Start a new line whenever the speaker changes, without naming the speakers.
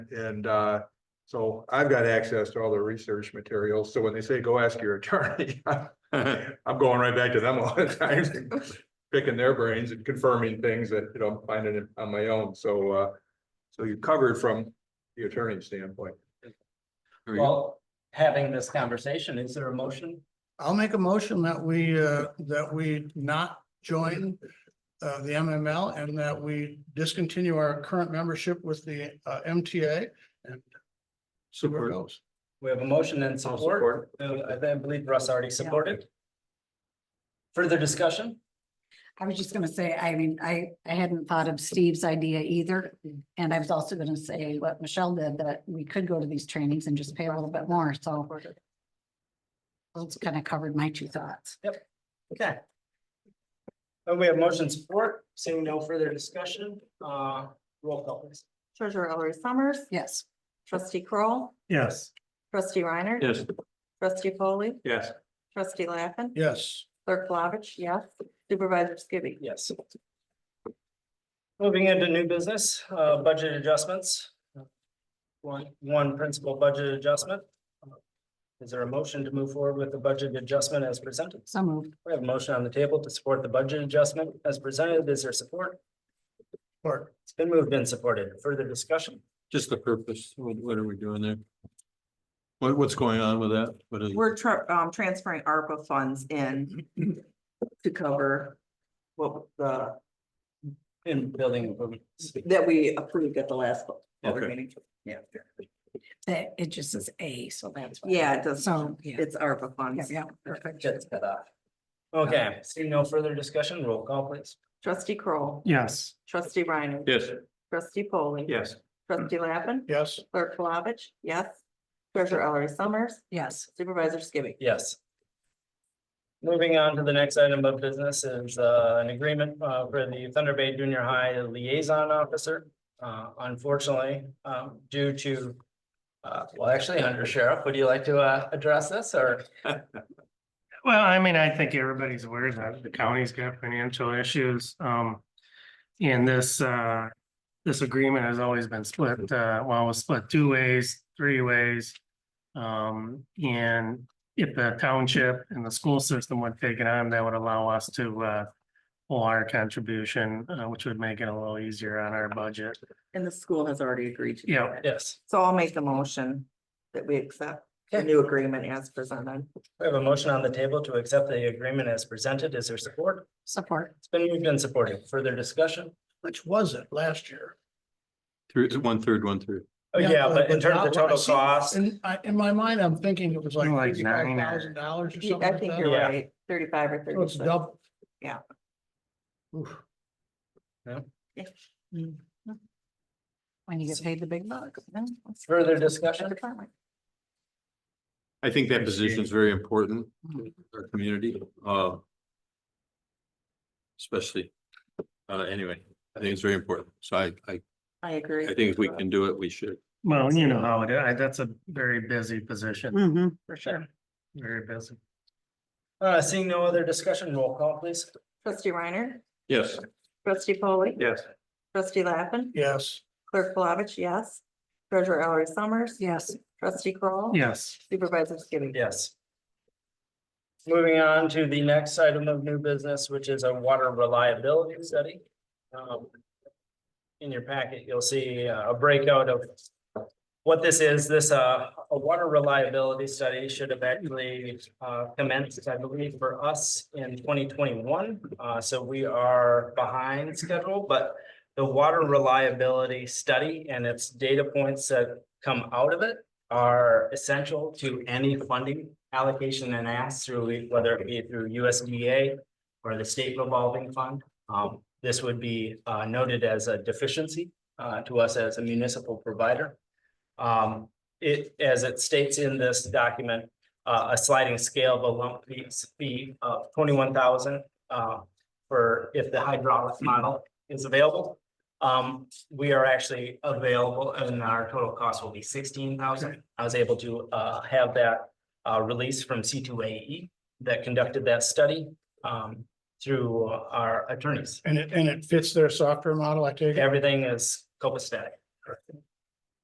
And uh, so I've got access to all the research materials. So when they say, go ask your attorney, I'm going right back to them a lot of times. and Picking their brains and confirming things that, you know, I'm finding it on my own. So uh, so you're covered from the attorney standpoint.
There you go.
Well, having this conversation, is there a motion?
I'll make a motion that we, uh, that we not join uh, the MML and that we discontinue our current membership with the uh, MTA and see where it goes.
We have a motion and support. Uh, I then believe Russ already supported. Further discussion?
I was just gonna say, I mean, I, I hadn't thought of Steve's idea either. And I was also gonna say what Michelle did, that we could go to these trainings and just pay a little bit more, so. That's kind of covered my two thoughts.
Okay. Uh, we have motion support, seeing no further discussion, uh, roll call please.
Treasurer Ellery Summers.
Yes,
Trustee Kroll,
Yes.
Trustee Reiner.
Yes,
Trustee Foley,
Yes.
Trustee Laffin.
Yes,
Clerk Flavich, yes. Supervisor Skibby.
Yes. Moving into new business, uh, budget adjustments. One, one principal budget adjustment. Is there a motion to move forward with the budget adjustment as presented?
so moved.
We have a motion on the table to support the budget adjustment as presented. Is there support?
or
It's been moved and supported. Further discussion?
just the purpose. What, what are we doing there? What, what's going on with that? What is,
We're tra- um, transferring ARPA funds in to cover what the,
In building improvements.
that we approved at the last public
Okay.
meeting.
That, it just is A, so that's. why.
Yeah, it does,
So, yeah,
it's ARPA
yeah,
funds.
yeah, perfect.
Just cut off. Okay, seeing no further discussion, roll call please.
Trustee Kroll,
Yes,
Trustee Reiner.
yes,
Trustee Foley,
Yes.
Trustee Laffin.
yes,
Clerk Flavich, yes. Treasurer Ellery Summers.
Yes,
Supervisor Skibby.
Yes. Moving on to the next item of business is uh, an agreement uh, for the Thunder Bay Junior High Liaison Officer. Uh, Unfortunately, um, due to, uh, well, actually, Under Sheriff, would you like to uh, address this or?
well, I mean, I think everybody's aware that the county's got financial issues, um. And this, uh, this agreement has always been split, uh, well, it was split two ways, three ways. Um, and if the township and the school system would take it on, that would allow us to, uh. Pull our contribution, uh, which would make it a little easier on our budget,
And the school has already agreed to. do
Yeah.
that.
Yes,
So I'll make the motion that we accept the
Okay.
new agreement as presented.
we have a motion on the table to accept the agreement as presented. Is there support?
support.
It's been moved and supported. Further discussion?
which was it last year?
three, one third, one third.
Oh, yeah, but in terms
not
of
what I
total
see.
cost,
In, I, in my mind, I'm thinking it was like
Like
fifty-five
nine or-
thousand dollars or
Yeah, I
something
think
like
you're
that.
Yeah.
right, thirty-five or
So it's
thirty-six.
double.
Yeah.
Oof.
When you get paid the big bucks.
further discussion?
I think that position is very important to our community, uh. Especially, uh, anyway, I think it's very important. So I, I,
I agree.
I think if we can do it, we should.
well, you know how it is, I- that's a very busy position,
Mm-hmm.
For sure.
very busy.
Uh, Seeing no other discussion, roll call please.
Trustee Reiner.
Yes,
Trustee Foley,
Yes.
Trustee Laffin.
Yes.
Clerk Flavich, yes. Treasurer Ellery Summers.
Yes,
Trustee Kroll,
Yes.
Supervisor Skibby.
Yes. Moving on to the next item of new business, which is a water reliability study. Um, In your packet, you'll see uh, a breakout of what this is. This, uh, a water reliability study should have actually uh, commenced, I believe, for us in twenty twenty-one. Uh, So we are behind schedule, but the water reliability study and its data points that come out of it are essential to any funding allocation and ask through, whether it be through USDA or the state revolving fund. Um, this would be uh, noted as a deficiency uh, to us as a municipal provider. Um, it, as it states in this document, uh, a sliding scale of a lump fee- fee of twenty-one thousand uh, for if the hydraulic model is available. Um, we are actually available and our total cost will be sixteen thousand. I was able to uh have that uh release from C two A E that conducted that study um through our attorneys.
And it, and it fits their software model, I take it?
Everything is copacetic.